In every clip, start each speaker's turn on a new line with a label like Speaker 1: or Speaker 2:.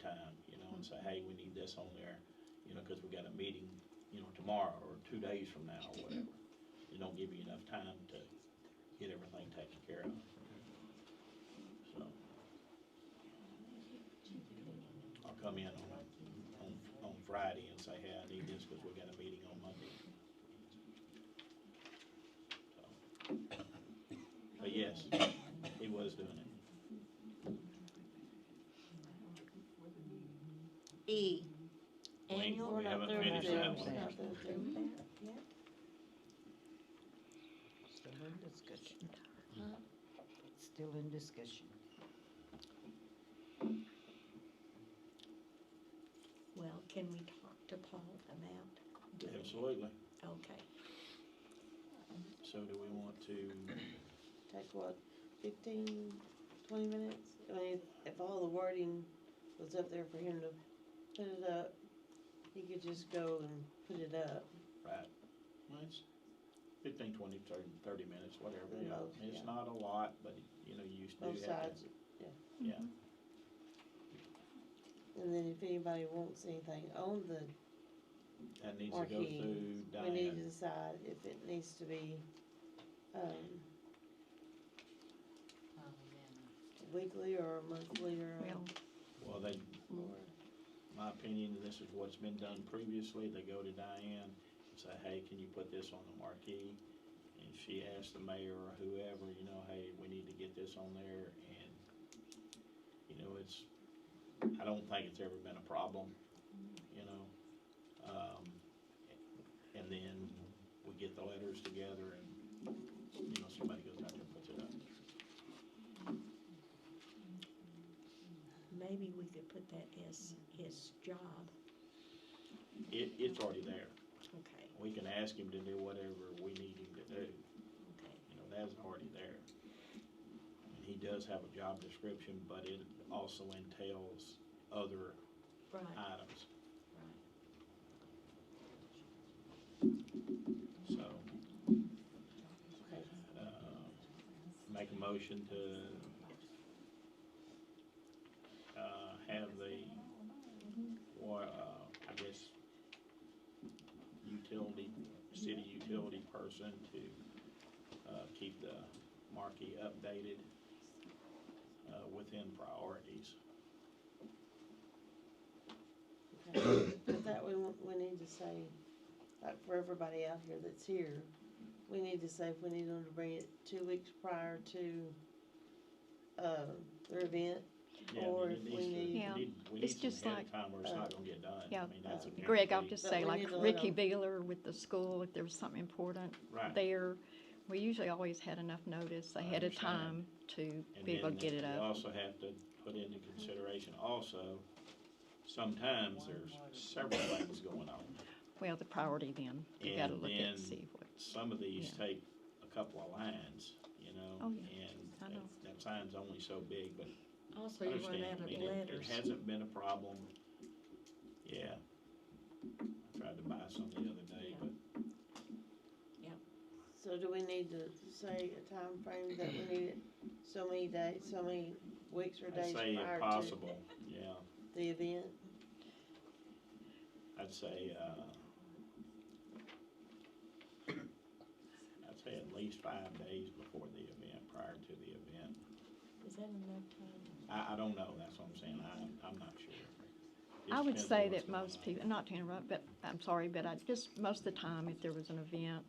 Speaker 1: time, you know, and say, hey, we need this on there, you know, because we got a meeting, you know, tomorrow or two days from now or whatever. It don't give you enough time to get everything taken care of. So. I'll come in on, on, on Friday and say, hey, I need this because we got a meeting on Monday. So. But yes, he was doing it.
Speaker 2: E,
Speaker 1: We-
Speaker 2: annual.
Speaker 1: We haven't finished that one.
Speaker 3: Still in discussion.
Speaker 2: Uh-huh.
Speaker 3: Still in discussion.
Speaker 2: Well, can we talk to Paul about doing it?
Speaker 1: Absolutely.
Speaker 2: Okay,
Speaker 1: So do we want to,
Speaker 4: take what, fifteen, twenty minutes? I mean, if all the wording was up there for him to put it up, he could just go and put it up.
Speaker 1: right, well, it's fifteen, twenty, thirty, thirty minutes, whatever, you know.
Speaker 4: Both,
Speaker 1: It's
Speaker 4: yeah.
Speaker 1: not a lot, but, you know, you used to
Speaker 4: Both
Speaker 1: do that.
Speaker 4: sides.
Speaker 1: Yeah,
Speaker 4: And then if anybody wants anything on the,
Speaker 1: that needs
Speaker 4: or
Speaker 1: to go
Speaker 4: he,
Speaker 1: through
Speaker 4: we need to
Speaker 1: Diane.
Speaker 4: decide if it needs to be, um, weekly or monthly or
Speaker 2: well,
Speaker 1: Well, they,
Speaker 4: more.
Speaker 1: my opinion, and this is what's been done previously, they go to Diane and say, hey, can you put this on the marquee? And she asks the mayor or whoever, you know, hey, we need to get this on there, and, you know, it's, I don't think it's ever been a problem, you know? Um, and then we get the letters together and, you know, somebody goes out there and puts it up.
Speaker 2: maybe we could put that as his job,
Speaker 1: It, it's already there.
Speaker 2: okay,
Speaker 1: We can ask him to do whatever we need him to do.
Speaker 2: okay,
Speaker 1: you know, that's already there. And he does have a job description, but it also entails other
Speaker 2: right,
Speaker 1: items,
Speaker 2: right.
Speaker 1: so,
Speaker 4: Okay.
Speaker 1: uh, make a motion to, uh, have the, wa- uh, I guess, utility, city utility person to, uh, keep the marquee updated, uh, within priorities.
Speaker 4: Okay, But that we, want- we need to say, like for everybody out here that's here, we need to say if we need them to bring it two weeks prior to, uh, their event.
Speaker 1: Yeah,
Speaker 4: Or
Speaker 1: I mean,
Speaker 4: if
Speaker 1: it needs
Speaker 4: we
Speaker 1: to-
Speaker 4: need-
Speaker 5: Yeah.
Speaker 1: We need, we
Speaker 5: It's
Speaker 1: need
Speaker 5: just
Speaker 1: some ahead
Speaker 5: like, uh,
Speaker 1: of time where it's not gonna get done. I
Speaker 5: yeah.
Speaker 1: mean, that's a
Speaker 5: Greg, I'll
Speaker 1: guarantee.
Speaker 5: just
Speaker 4: But
Speaker 5: say,
Speaker 4: we
Speaker 5: like
Speaker 4: need to let
Speaker 5: Ricky
Speaker 4: 'em-
Speaker 5: Beeler with the school, if there was something important
Speaker 1: Right.
Speaker 5: there, we usually always had enough notice
Speaker 1: I
Speaker 5: ahead of
Speaker 1: understand.
Speaker 5: time to
Speaker 1: And
Speaker 5: be able to
Speaker 1: then
Speaker 5: get it
Speaker 1: You
Speaker 5: up.
Speaker 1: also have to put into consideration also, sometimes there's several things going on.
Speaker 5: Well, the priority then, you gotta
Speaker 1: And
Speaker 5: look at
Speaker 1: then
Speaker 5: and see what,
Speaker 1: Some of these
Speaker 5: Yeah.
Speaker 1: take a couple of lines, you know?
Speaker 5: Oh, yeah.
Speaker 1: And
Speaker 5: I know.
Speaker 1: that- that sign's only so big, but
Speaker 2: Also, you run
Speaker 1: understand,
Speaker 2: out
Speaker 1: I
Speaker 2: of
Speaker 1: mean, it- it
Speaker 2: letters.
Speaker 1: hasn't been a problem. Yeah. I tried to buy some the other day,
Speaker 2: Yeah.
Speaker 1: but
Speaker 4: So do we need to say a time frame that we need it so many days, so many weeks or
Speaker 1: I
Speaker 4: days
Speaker 1: say if
Speaker 4: prior to
Speaker 1: possible, yeah.
Speaker 4: the event?
Speaker 1: I'd say, uh, I'd say at least five days before the event, prior to the event.
Speaker 2: Is that enough time?
Speaker 1: I, I don't know, that's what I'm saying, I, I'm not sure.
Speaker 5: I would
Speaker 1: Depends on
Speaker 5: say
Speaker 1: what's
Speaker 5: that
Speaker 1: going
Speaker 5: most
Speaker 1: on.
Speaker 5: people, not to interrupt, but I'm sorry, but I just, most of the time, if there was an event,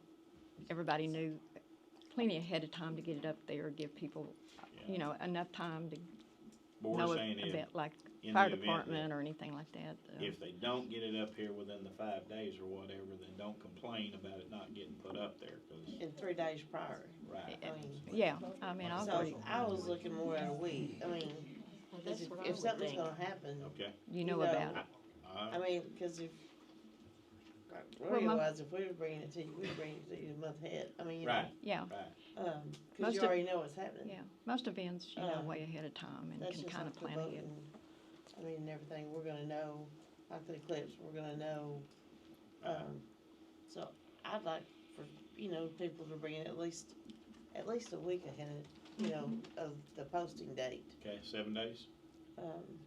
Speaker 5: everybody knew plenty ahead of time to get it up there, give people,
Speaker 1: Yeah.
Speaker 5: you know, enough time to
Speaker 1: But
Speaker 5: know
Speaker 1: we're
Speaker 5: a-
Speaker 1: saying
Speaker 5: a
Speaker 1: if,
Speaker 5: bit, like
Speaker 1: in
Speaker 5: fire
Speaker 1: the event
Speaker 5: department
Speaker 1: that-
Speaker 5: or anything like that. uh,
Speaker 1: if they don't get it up here within the five days or whatever, then don't complain about it not getting put up there, cause,
Speaker 4: In three days prior.
Speaker 1: right.
Speaker 4: I mean,
Speaker 5: Yeah, I mean, I agree.
Speaker 4: so I was looking more at a week, I mean,
Speaker 2: Well,
Speaker 4: cause
Speaker 2: that's
Speaker 4: if,
Speaker 2: what I
Speaker 4: if
Speaker 2: would
Speaker 4: something's
Speaker 2: think.
Speaker 4: gonna happen,
Speaker 1: Okay,
Speaker 5: You know
Speaker 4: you know,
Speaker 5: about it.
Speaker 4: I
Speaker 1: alright,
Speaker 4: mean, cause if, like,
Speaker 5: Well, my-
Speaker 4: otherwise, if we were bringing it to you, we'd bring it to you a month ahead, I mean, you know.
Speaker 1: right,
Speaker 5: Yeah,
Speaker 1: right,
Speaker 4: Um,
Speaker 5: Most
Speaker 4: cause you
Speaker 5: of-
Speaker 4: already know what's happening.
Speaker 5: yeah. Most events, you know,
Speaker 4: Uh,
Speaker 5: way ahead of time and
Speaker 4: That's
Speaker 5: can
Speaker 4: just
Speaker 5: kind
Speaker 4: like
Speaker 5: of
Speaker 4: the
Speaker 5: plan ahead.
Speaker 4: voting. I mean, and everything, we're gonna know, like the clips, we're gonna know, um, so I'd like for, you know, people to bring it at least, at
Speaker 5: Mm-hmm.
Speaker 4: least a week ahead, you know, of the posting date.
Speaker 1: okay, seven days?
Speaker 4: Um,